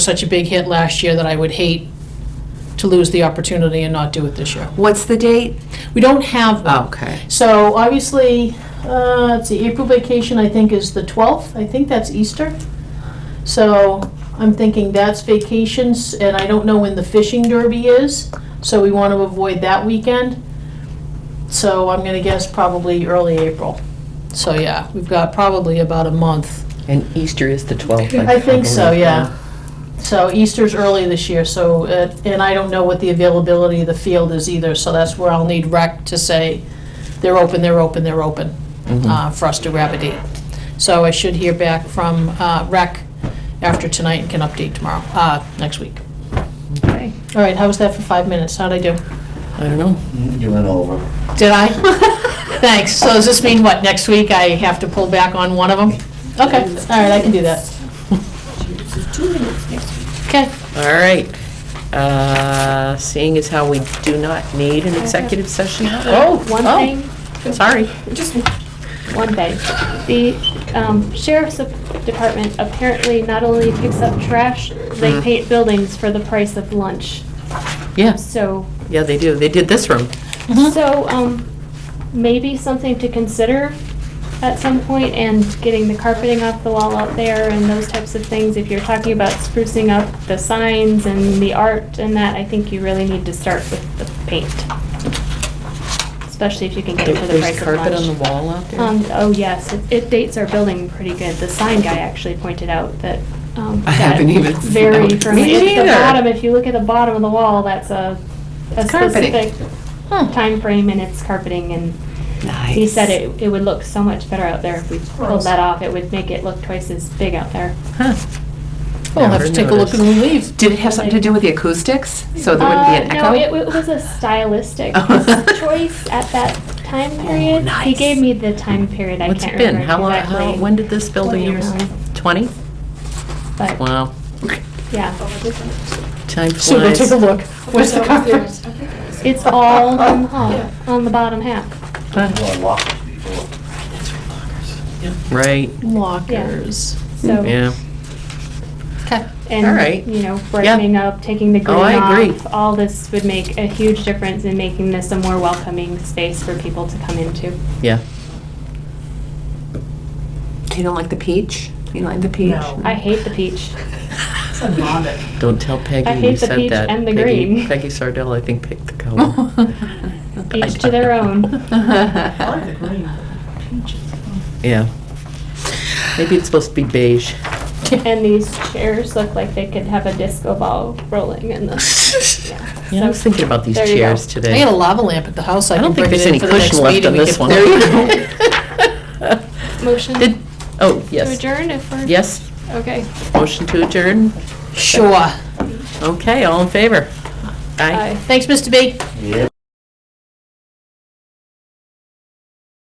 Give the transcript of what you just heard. such a big hit last year that I would hate to lose the opportunity and not do it this year. What's the date? We don't have one. Okay. So obviously, uh, let's see, April vacation, I think, is the 12th. I think that's Easter. So I'm thinking that's vacations, and I don't know when the fishing derby is, so we want to avoid that weekend. So I'm going to guess probably early April. So yeah, we've got probably about a month. And Easter is the 12th. I think so, believe. yeah. So Easter's early this year, so, uh, and I don't know what the availability of the field is either, so that's where I'll need rec to say, they're open, they're open, they're open, Mm-hmm. uh, for us to grab a date. So I should hear back from uh, rec after tonight and can update tomorrow, uh, next week. Okay. All right, how was that for five minutes? How'd I do? I don't know. You went over. Did I? Thanks. So does this mean what, next week I have to pull back on one of them? Okay, all right, I can do that. Okay. All right. Uh, Seeing as how we do not need an executive session. Oh, One oh, thing, Sorry. one thing. The um, sheriff's department apparently not only picks up trash, they Mhm. paint buildings for the price of lunch. Yes. So, oh, Yeah, they do. They did this room. Mhm. so um, maybe something to consider at some point and getting the carpeting off the wall out there and those types of things. If you're talking about sprucing up the signs and the art and that, I think you really need to start with the paint. Especially if you can get it for the price There's of lunch. carpet on the wall out there. Um, oh, yes, it- it dates our building pretty good. The sign guy actually pointed out that, um. I haven't even seen Very that. from Me the neither. bottom, if you look at the bottom of the wall, that's a, a It's carpeting. specific Hmm. timeframe and it's carpeting and Nice. he said it, it would look so much better out there if we pulled that off. It would make it look twice as big out there. Huh. We'll have to take a look when Never we leave. Did it have something to do with the acoustics? So there wouldn't be an Uh, echo? No, it, it was a stylistic Oh. choice at that time period. He nice. gave me the time period. I noticed. Oh, What's can't it been? remember How long, exactly. how, when did this building? Twenty use- years. 20? but, Wow. Yeah. Time So we'll take flies. a look. Where's the carpet? It's all on the hall, on the bottom half. You Huh. were locked before. Right, Lockers. So, yeah. Okay. all right. and, you know, brightening up, taking the Oh, I green agree. off, all this would make a huge difference in making this a more welcoming space for people to come into. Yeah. You don't like the peach? You don't like the peach? No. I hate the peach. Don't tell Peggy I you hate the said peach that. and the Peggy- green. Peggy Sardell, I think, picked the color. Each to their own. I like the green. Yeah. Maybe it's supposed to be beige. And these chairs look like they could have a disco ball rolling in them. Yeah, I was thinking about these There you go. chairs I today. got a lava lamp at the house. I I can don't think bring it in there's any for the next cushion left meeting. on We this can- one. There you go. Motion Did, to oh, yes. adjourn if we're. Yes, Okay. motion to adjourn. Sure. Okay, all in favor? Aye. Aye. Thanks, Mr. B. Yeah.